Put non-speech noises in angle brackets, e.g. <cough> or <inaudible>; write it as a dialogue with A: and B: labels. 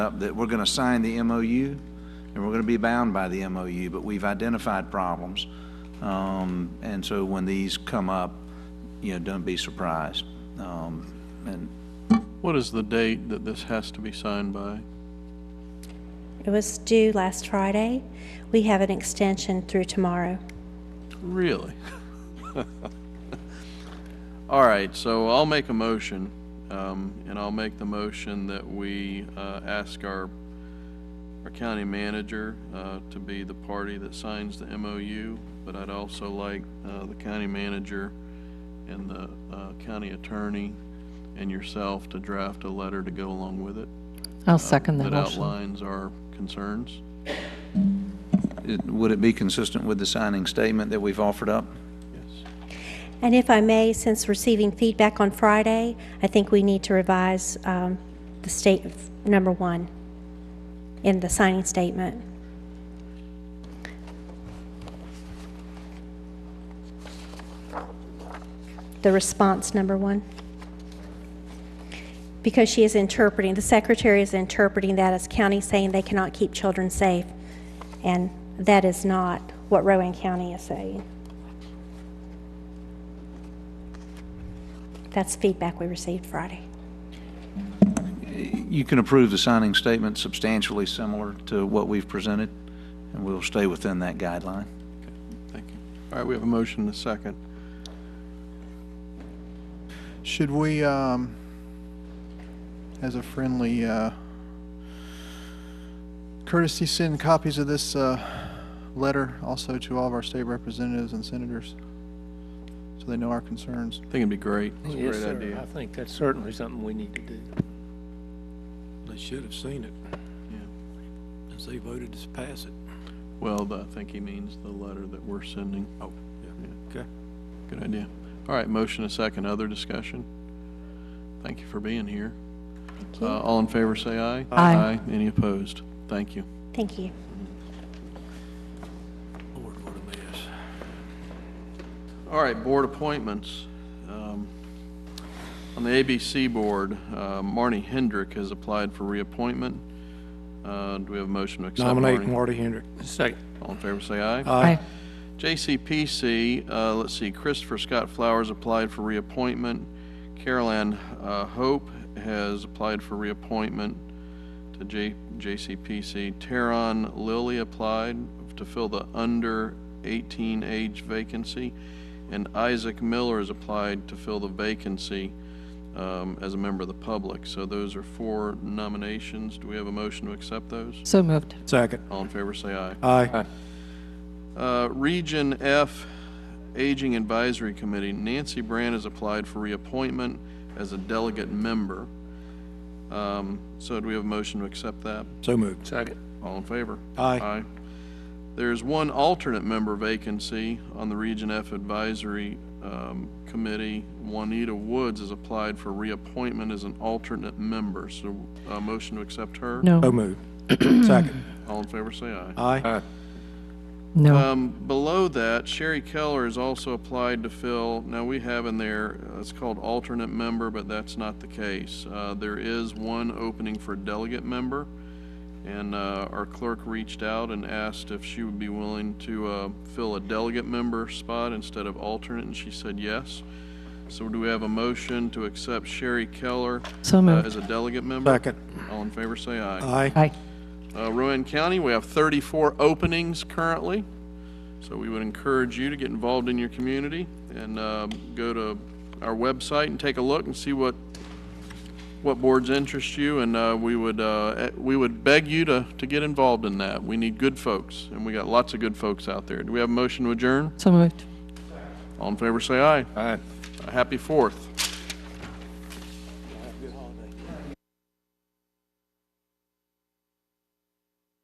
A: up that we're going to sign the MOU, and we're going to be bound by the MOU, but we've identified problems. Um, And so when these come up, you know, don't be surprised. Um, And
B: What is the date that this has to be signed by?
C: It was due last Friday. We have an extension through tomorrow.
B: Really? <laughs> All right, so I'll make a motion, um, and I'll make the motion that we, uh, ask our, our county manager, uh, to be the party that signs the MOU, but I'd also like, uh, the county manager and the, uh, county attorney and yourself to draft a letter to go along with it.
D: I'll second the
B: That
D: motion.
B: outlines our concerns.
A: it- would it be consistent with the signing statement that we've offered up?
B: Yes.
C: And if I may, since receiving feedback on Friday, I think we need to revise um, the state of number one in the signing statement. The response number one. Because she is interpreting, the secretary is interpreting that as county saying they cannot keep children safe. And that is not what Rowan County is saying. That's feedback we received Friday.
A: You can approve the signing statement substantially similar to what we've presented, and we'll stay within that guideline.
B: Thank you. All right, we have a motion and a second.
E: Should we, um, as a friendly, uh, courtesy, send copies of this, uh, letter also to all of our state representatives and senators? So they know our concerns.
B: I think it'd be great. It's a
F: Yes,
B: great
F: sir.
B: idea.
F: I think that's certainly something we need to do. They should have seen it,
B: Yeah.
F: as they voted to pass it.
B: Well, the- I think he means the letter that we're sending.
F: Oh, yeah, okay.
B: Good idea. All right, motion a second. Other discussion? Thank you for being here.
C: Thank
B: Uh,
C: you.
B: all in favor, say aye.
D: Aye.
B: Any opposed? Thank you.
C: Thank you.
F: Lord, what a mess.
B: All right, board appointments. Um, On the ABC board, uh, Marnie Hendrick has applied for reappointment. Uh, do we have a motion to accept
F: Nominate
B: Marnie?
F: Marty Hendrick. Second.
B: All in favor, say aye.
D: Aye.
B: JCPC, uh, let's see, Christopher Scott Flowers applied for reappointment. Carol Ann uh, Hope has applied for reappointment to J- JCPC. Teron Lilly applied to fill the under 18 age vacancy. And Isaac Miller has applied to fill the vacancy um, as a member of the public. So those are four nominations. Do we have a motion to accept those?
D: So moved.
F: Second.
B: All in favor, say aye.
F: Aye.
B: Uh, Region F Aging Advisory Committee, Nancy Brand has applied for reappointment as a delegate member. Um, So do we have a motion to accept that?
F: So moved. Second.
B: All in favor?
F: Aye.
B: Aye. There's one alternate member vacancy on the Region F Advisory um, Committee. Juanita Woods has applied for reappointment as an alternate member, so a motion to accept her?
F: So
D: No,
F: moved. Second.
B: All in favor, say aye.
F: Aye.
D: no.
B: Um, below that, Sherry Keller has also applied to fill, now we have in there, uh, it's called alternate member, but that's not the case. Uh, there is one opening for delegate member, and, uh, our clerk reached out and asked if she would be willing to, uh, fill a delegate member spot instead of alternate, and she said yes. So do we have a motion to accept Sherry Keller
D: So
B: uh,
D: moved.
B: as a delegate member?
F: Second.
B: All in favor, say aye.
F: Aye.
D: Aye.
B: Uh, Rowan County, we have 34 openings currently, so we would encourage you to get involved in your community and um, go to our website and take a look and see what, what boards interest you, and uh, we would, uh, eh, we would beg you to, to get involved in that. We need good folks, and we got lots of good folks out there. Do we have a motion to adjourn?
D: So moved.
B: All in favor, say aye.
F: Aye.
B: A Happy Fourth.